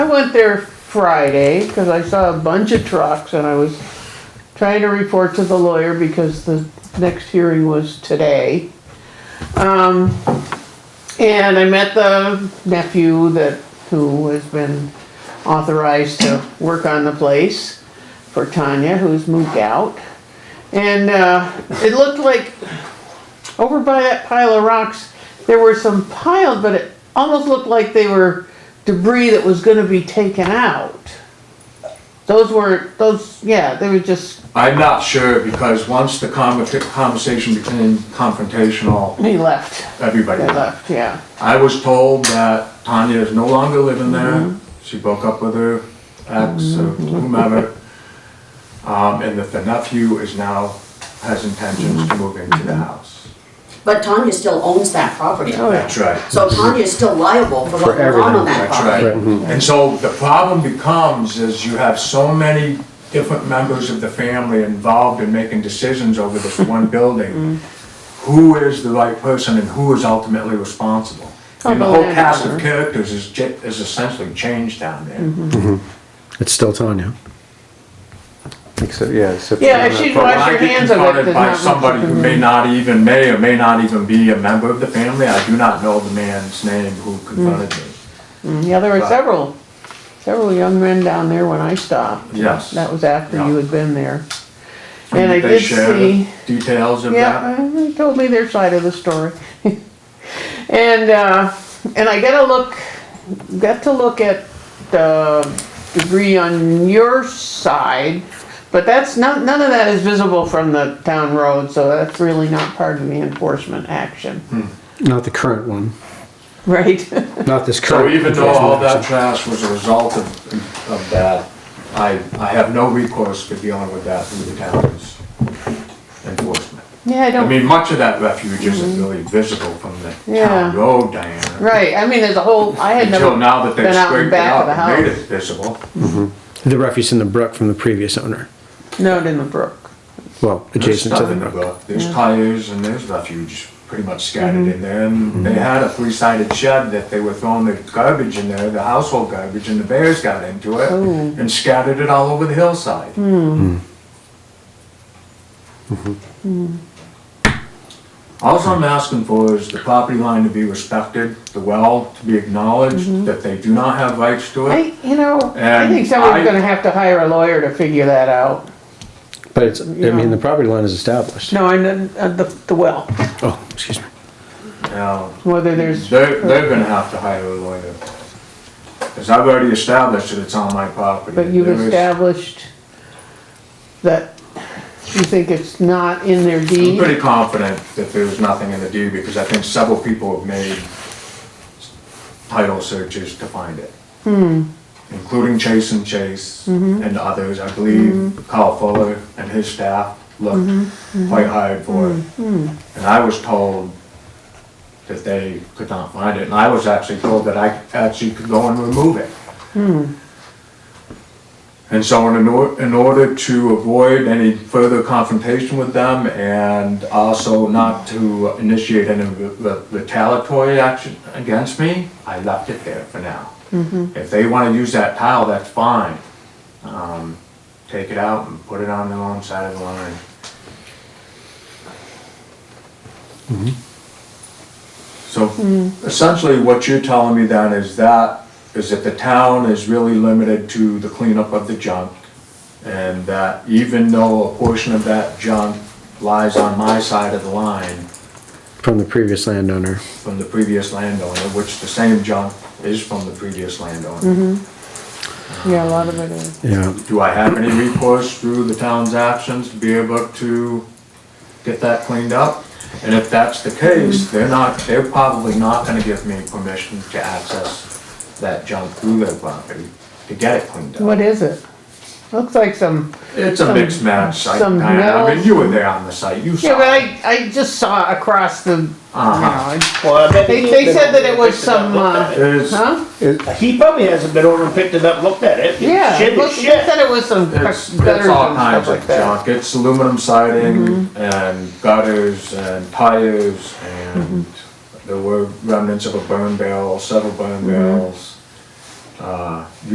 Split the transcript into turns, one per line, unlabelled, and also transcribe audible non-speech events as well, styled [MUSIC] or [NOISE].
went there Friday because I saw a bunch of trucks and I was trying to report to the lawyer because the next hearing was today. Um, and I met the nephew that, who has been authorized to work on the place for Tanya, who's moved out. And, uh, it looked like over by that pile of rocks, there were some piled, but it almost looked like they were debris that was gonna be taken out. Those weren't, those, yeah, they were just,
I'm not sure because once the conver- conversation became confrontational,
they left,
everybody
they left,
left.
yeah.
I was told that Tanya is no longer living there. She broke up with her ex or whomever. Um, and that the nephew is now, has intentions to move into the house.
But Tanya still owns that property.
Oh, yeah.
That's right.
So Tanya is still liable for
For
what went on
everything,
on that
That's
property.
right.
Mm-hmm.
And so the problem becomes is you have so many different members of the family involved in making decisions
[LAUGHS]
over this one building.
Mm-hmm.
Who is the right person and who is ultimately responsible? And the
Oh,
whole
the
cast of
landowner.
characters is, ja- is essentially changed down
Mm-hmm.
there.
It's still Tanya. Except, yeah, except.
Yeah, if she's
But when
Wash
I
your
get
hands of it,
confronted
there's not
by
much Mm-hmm. you
somebody
can
who
do.
may not even, may or may not even be a member of the family, I do not know the man's name who confronted
Mm.
me.
Yeah, there were
Right.
several, several young men down there when I stopped.
Yes.
That was after you
Yeah.
had been there. And I
They
did
share
see,
Details of that.
yeah, they told me their side of the story. [LAUGHS] And, uh, and I gotta look, got to look at the debris on your side, but that's not, none of that is visible from the town road, so that's really not part of the enforcement action.
Hmm.
Not the current one,
Right? [LAUGHS]
not this
So
current.
even though all that
enforcement
trash was a result of, of that, I, I have no recourse for dealing with that through the town's enforcement.
Yeah, I
I
don't,
mean, much of that refuge isn't really visible from the
Mm-hmm. Yeah.
town road, Diana.
right, I mean, there's a whole, I had never.
Until now that they've
been out in
scraped it
back of
up
the
and made
house.
it visible.
action. The refuse in the brook from the previous owner,
No, it in the brook.
well,
There's
adjacent to
stuff
the
in the
brook.
brook, there's tires and there's refuge pretty much scattered in there.
Mm-hmm.
And they had a three-sided shed that they were throwing the garbage in there, the household garbage, and the bears got into it
Oh.
and scattered it all over the hillside.
Hmm. Mm-hmm.
Mm-hmm. All I'm asking for is the property line to be respected, the well to be acknowledged, that they do not have rights to it.
I, you know, I
And
think someone's
I-
gonna have to hire a lawyer to figure that out.
But it's, I mean, the property line is established.
No, and uh, the, the well,
Oh, excuse me.
Now,
whether there's,
They're, they're gonna have to hire a lawyer. Cause I've already established that it's on my property.
but you've
There is-
established that you think it's not in their
I'm
deed.
pretty confident that there was nothing in the deed, because I think several people have made title searches to find it.
Hmm.
Including Chase and Chase
Mm-hmm.
and others, I believe Kyle Fuller and his staff
Mm-hmm.
looked quite hard for it. And I was told that they could not find it, and I was actually told that I actually could go and remove it. And so in, or- in order to avoid any further confrontation with them and also not to initiate any re- re- retaliatory action against me, I left it there for now. If they want to use that tile, that's fine. Um, Take it out and put it on their own side of the line. So essentially, what you're telling me then is that, is that the town is really limited to the cleanup of the junk. And that even though a portion of that junk lies on my side of the line
From the previous landowner.
from the previous landowner, which the same junk is from the previous landowner.
Yeah, a lot of it is.
Yeah,
Do I have any recourse through the town's actions to be able to get that cleaned up? And if that's the case, they're not, they're probably not gonna give me permission to access that junk through their property to get it cleaned up.
What is it? Looks like some,
It's a mixed match site,
some
Diana. I mean,
metal-
you were there on the site, you saw.
yeah, but
it.
I, I just saw across the, you know,
Uh-huh.
I-
Well, I bet he
They-
ain't
they
been
said
over
that
there
it was
picked up,
some, uh,
looked at it.
There's,
huh?
He probably hasn't been over and picked it up, looked at it.
Yeah,
Shit
it
is
looked- they
shit.
said it was some gutters
it's,
and
it's all
stuff
kinds
like
of
that. Mm-hmm.
junk. It's aluminum siding and gutters and tires
Mm-hmm.
and
Mm-hmm.
there were remnants of a burn barrel, several burn barrels. Uh,